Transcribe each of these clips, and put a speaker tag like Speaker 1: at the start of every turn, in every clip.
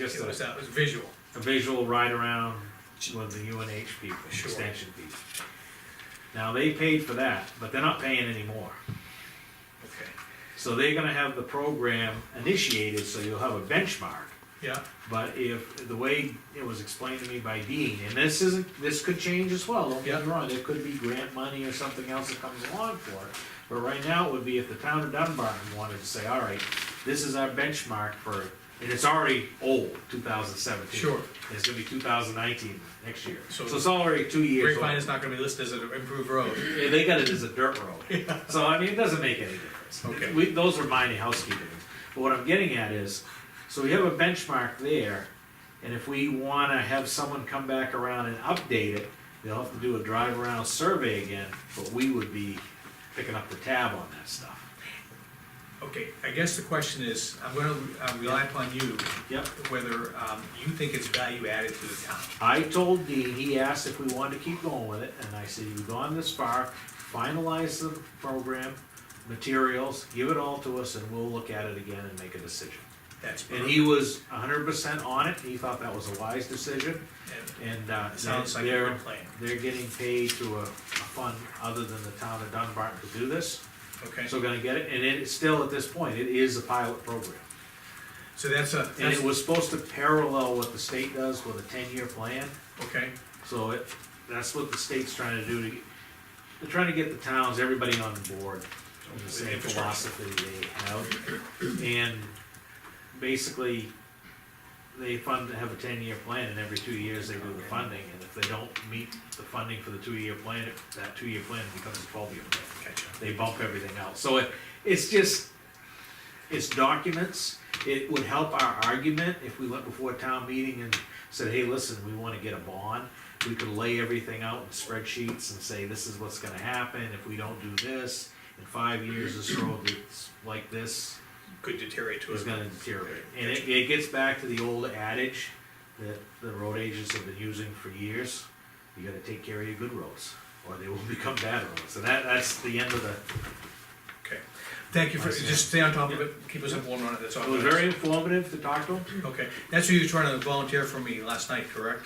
Speaker 1: Just
Speaker 2: It was,
Speaker 1: a,
Speaker 2: uh, it was visual.
Speaker 1: a visual ride around with the UNH people,
Speaker 2: Sure.
Speaker 1: extension people. Now, they paid for that, but they're not paying anymore.
Speaker 2: Okay.
Speaker 1: So they're gonna have the program initiated, so you'll have a benchmark.
Speaker 2: Yeah,
Speaker 1: But if, the way it was explained to me by Dean, and this isn't, this could change as well, don't get me
Speaker 2: Yeah.
Speaker 1: wrong, there could be grant money or something else that comes along for it. But right now, it would be if the town of Dunbar wanted to say, all right, this is our benchmark for, and it's already old, two thousand seventeen.
Speaker 2: Sure.
Speaker 1: It's gonna be two thousand nineteen next year, so
Speaker 2: So-
Speaker 1: it's already two years old.
Speaker 2: Grapevine is not gonna be listed as an improved road.
Speaker 1: Yeah, They got it as a dirt road, so I mean, it doesn't make any difference.
Speaker 2: Okay.
Speaker 1: We, those are minor housekeeping, but what I'm getting at is, so we have a benchmark there, and if we wanna have someone come back around and update it, they'll have to do a drive around survey again, but we would be picking up the tab on that stuff.
Speaker 2: Okay, I guess the question is, I'm gonna uh, rely upon you,
Speaker 1: Yep.
Speaker 2: whether um, you think it's value added to the town.
Speaker 1: I told Dean, he asked if we wanted to keep going with it, and I said, you've gone this far, finalize the program, materials, give it all to us, and we'll look at it again and make a decision.
Speaker 2: That's.
Speaker 1: And he was hundred percent on it, he thought that was a wise decision,
Speaker 2: And
Speaker 1: and, uh,
Speaker 2: It sounds like a
Speaker 1: they're,
Speaker 2: good plan.
Speaker 1: they're getting paid through a, a fund other than the town of Dunbar to do this,
Speaker 2: Okay,
Speaker 1: so gonna get it, and it's still at this point, it is a pilot program.
Speaker 2: so that's a,
Speaker 1: And
Speaker 2: that's,
Speaker 1: it was supposed to parallel what the state does with a ten-year plan,
Speaker 2: okay,
Speaker 1: so it, that's what the state's trying to do to, they're trying to get the towns, everybody on board, with the same
Speaker 2: Infrastructure.
Speaker 1: philosophy they have. And basically, they fund, have a ten-year plan, and every two years they do the funding, and if they don't meet the funding for the two-year plan, that two-year plan becomes a twelve-year plan
Speaker 2: gotcha.
Speaker 1: they bump everything else. So it, it's just, it's documents. It would help our argument if we went before a town meeting and said, hey, listen, we wanna get a bond. We could lay everything out in spreadsheets and say, this is what's gonna happen if we don't do this. In five years, this road that's like this
Speaker 2: Could deteriorate to
Speaker 1: is
Speaker 2: a,
Speaker 1: gonna deteriorate. And it, it gets back to the old adage that the road agents have been using for years. You gotta take care of your good roads, or they will become bad roads. And that, that's the end of the,
Speaker 2: okay. Thank you for,
Speaker 1: Nice, yeah.
Speaker 2: just stay on top of it, keep us informed on it, that's all.
Speaker 1: It was very informative to talk to him.
Speaker 2: Okay, that's who you were trying to volunteer for me last night, correct?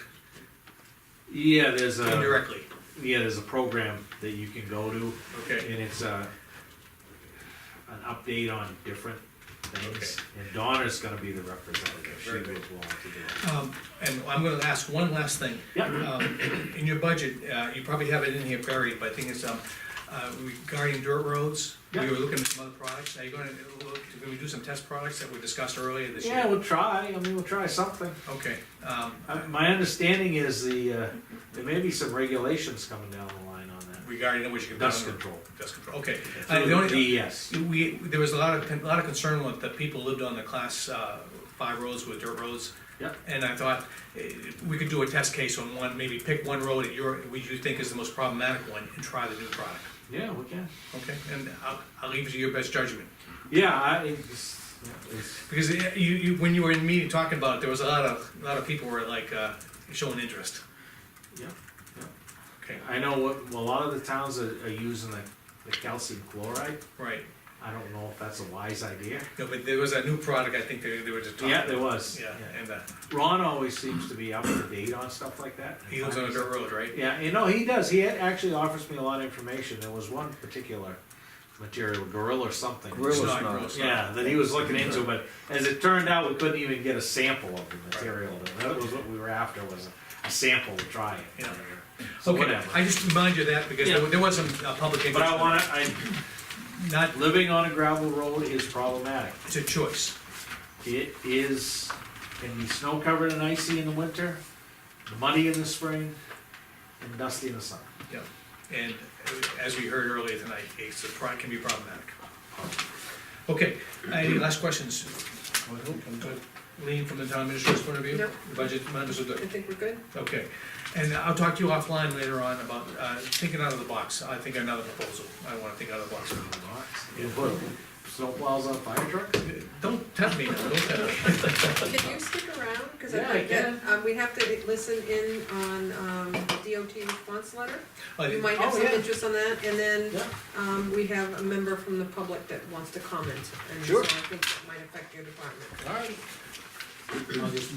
Speaker 1: Yeah, there's a,
Speaker 2: Indirectly,
Speaker 1: yeah, there's a program that you can go to,
Speaker 2: okay.
Speaker 1: and it's uh an update on different things. And Donna's gonna be the representative, she
Speaker 2: very
Speaker 1: was
Speaker 2: good.
Speaker 1: willing to do
Speaker 2: Um, and I'm gonna ask one last thing.
Speaker 1: Yeah.
Speaker 2: Um, In your budget, uh, you probably have it in here buried, but I think it's, um, uh, regarding dirt roads, we
Speaker 1: Yeah.
Speaker 2: were looking at some other products, now you're gonna look, can we do some test products that we discussed earlier this
Speaker 1: it.
Speaker 2: year?
Speaker 1: Yeah, we'll try, I mean, we'll try something.
Speaker 2: Okay, um,
Speaker 1: Uh, My understanding is the, uh, there may be some regulations coming down the line on that.
Speaker 2: regarding what you can.
Speaker 1: Dust control. E
Speaker 2: Dust control, okay. Uh,
Speaker 1: Through
Speaker 2: the
Speaker 1: Uh, the
Speaker 2: only-
Speaker 1: DES.
Speaker 2: We, there was a lot of, con- a lot of concern with the people lived on the class, uh, five roads with dirt roads.
Speaker 1: Yeah.
Speaker 2: And I thought, eh, we could do a test case on one, maybe pick one road that you're, which you think is the most problematic one and try the new product.
Speaker 1: Yeah, we can.
Speaker 2: Okay, and I'll, I'll leave it to your best judgment,
Speaker 1: Yeah, I, it's, yeah, it's-
Speaker 2: because eh, you, you, when you were in the meeting talking about it, there was a lot of, a lot of people were like, uh, showing interest.
Speaker 1: yeah.
Speaker 2: Okay,
Speaker 1: I know what, a lot of the towns are, are using the, the calcium chloride.
Speaker 2: right,
Speaker 1: I don't know if that's a wise idea.
Speaker 2: no, but there was a new product, I think they, they were just talking.
Speaker 1: Yeah, there
Speaker 2: about.
Speaker 1: was.
Speaker 2: Yeah, and, uh,
Speaker 1: Ron always seems to be up to date on stuff like that.
Speaker 2: he lives on a dirt road, right?
Speaker 1: Yeah, you know, he does. He had- actually offers me a lot of information. There was one particular material, gorilla or something.
Speaker 2: It's
Speaker 3: Gorilla. Real
Speaker 2: not
Speaker 3: smart.
Speaker 2: real smart.
Speaker 1: Yeah, that he was looking into, but as it turned out, we couldn't even get a sample of the material. That was what we were after, was a, a sample to try it.
Speaker 2: Yeah.
Speaker 1: So
Speaker 2: Okay,
Speaker 1: whatever.
Speaker 2: I just remind you of that, because there
Speaker 1: Yeah.
Speaker 2: were- there was some uh, public interest.
Speaker 1: But I
Speaker 2: in
Speaker 1: wanna, I,
Speaker 2: it. Not,
Speaker 1: living on a gravel road is problematic.
Speaker 2: it's a choice,
Speaker 1: It is, can be snow covered and icy in the winter, muddy in the spring, and dusty in the summer.
Speaker 2: yeah, and as we heard earlier tonight, it's a, pro- can be problematic. Okay, any last questions? Lean from the town administrator's point of view?
Speaker 4: No.
Speaker 2: The Budget members are
Speaker 4: I
Speaker 2: good,
Speaker 4: think we're good.
Speaker 2: okay, and I'll talk to you offline later on about, uh, thinking out of the box, I think another proposal, I wanna think out of the box.
Speaker 1: You put snowplows on fire trucks?
Speaker 2: Don't tempt me, now, don't tempt me.
Speaker 4: Can you stick around? Because
Speaker 1: Yeah,
Speaker 4: I
Speaker 1: I
Speaker 4: think that, um, we have to listen in on, um, DOT response letter.
Speaker 2: I
Speaker 4: You
Speaker 2: think-
Speaker 4: might have
Speaker 1: oh,
Speaker 4: some
Speaker 1: yeah.
Speaker 4: interest on that, and then,
Speaker 1: Yeah.
Speaker 4: um, we have a member from the public that wants to comment. And so
Speaker 1: Sure.
Speaker 4: I think that might affect your department.
Speaker 1: All right. I'll just